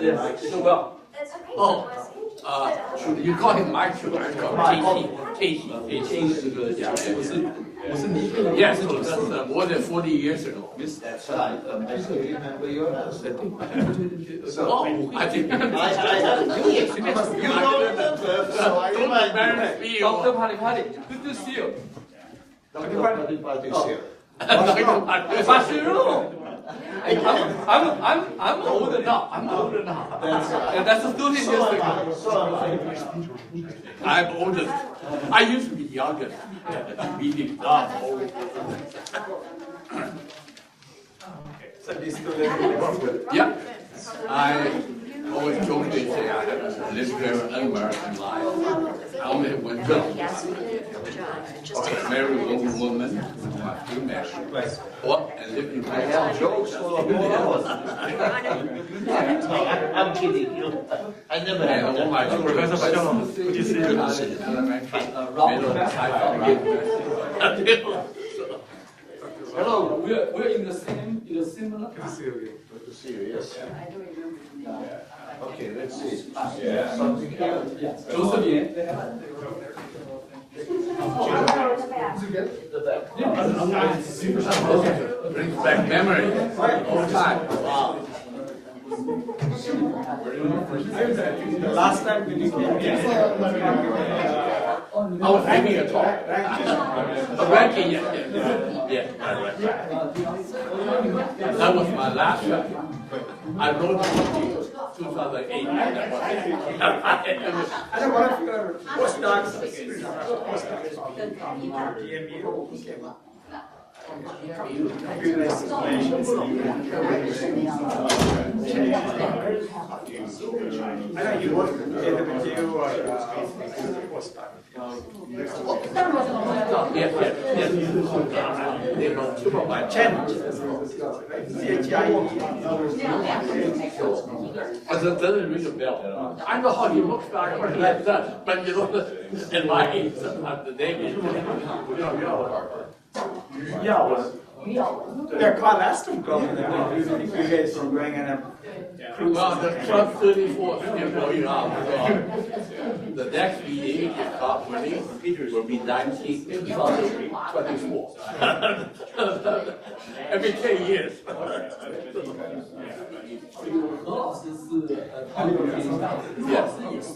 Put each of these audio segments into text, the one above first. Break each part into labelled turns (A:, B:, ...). A: Yes, it's a well.
B: That's okay.
C: Oh,
B: Blessing.
C: Uh, you call him Michael, I call him Casey. Casey, Casey 这个假名，我是我是尼克，也是九十四，more than forty years ago。
D: That's right. Um, I still remember your last name.
C: 哦，I think
D: I, I had to do it. You know the curve, so I remind you.
A: Doctor Pali Pali, good to see you.
D: Dr. Padipati is here.
A: Bashiru,
D: I can.
A: I'm I'm I'm older now. I'm older now.
D: That's right.
A: And that's a student
D: So
A: years
D: am
A: ago.
D: I, so am I.
C: I'm oldest. I used to be youngest. Meaning now I'm old.
D: So this student.
C: Yeah, I always joke and say I have lived very unmerited life. I only had one job. a married woman, woman, my few married. What? And lived in
D: I have
C: my
D: jokes for four hours. I'm kidding you. I never
C: And
D: had
C: all
D: that.
C: my children. Professor Bajano, good to see
A: Hello, we're we're in the same in the similar.
D: Good to see you, yes. Okay, let's see. Something here.
A: Yes. Joseph Yan.
D: The back.
C: Brings back memory, all time. Wow.
E: Last time when you came
C: I was having a talk. Ranking, yeah, yeah, yeah, right, right. That was my last show. I wrote it in 2008. That was it.
E: I know one of your postdocs. I know you worked either with you or uh, postdoc.
C: Yes, yes, yes. They know two of my
E: Chen, C H I E.
C: I said, doesn't ring a bell. I know how he looks back when he had that, but you know, in my age, sometimes the name is.
E: Yeah, well. Yeah, Carl Aston called me. I mean, you think you guys are going on a
C: Well, the Club 34 still going on. so The next meeting, if not winning, will be 1924. Every 10 years.
A: 何老师是呃，他那个天津大学，何老师也是。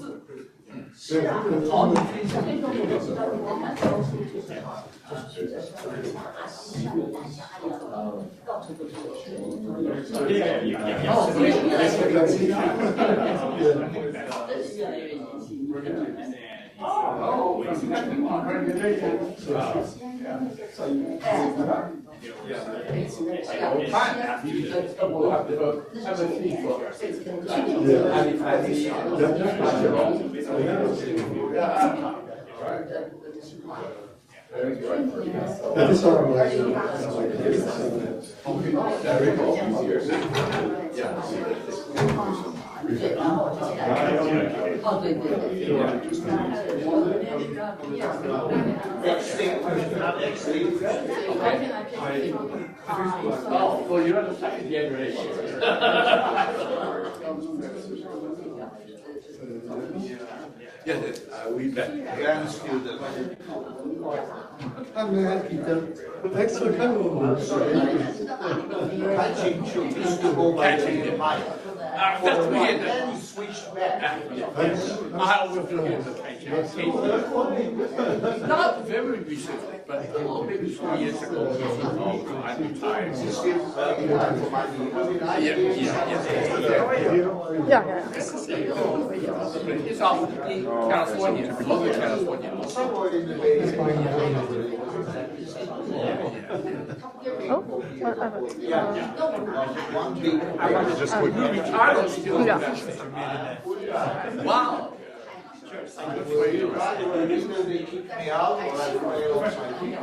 C: Oh, so you're the second generation. Yes, yes, uh, we met.
D: Grand student.
F: Hi, Matt, Peter. Thanks for coming over.
D: Catching should used to go by the name Mike.
C: Uh,
D: For a
C: that's
D: while,
C: weird.
D: then he switched back.
C: I always look at the patient. Not very recently, but oh, maybe three years ago. Oh, I retired. Yeah, yeah, yeah. It's out in California, Southern California.
D: Somewhere in the Bay. One big.
C: I was still in Wow. Good for you.
D: Either they kick me out or I fire off my team.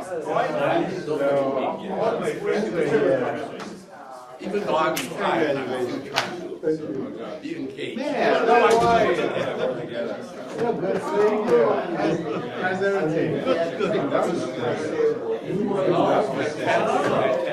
C: Even though I'm retired, I'm still trying to be engaged.
D: Yeah, that's why.
F: How's everything?
D: Good, good.
C: Oh, that's fantastic.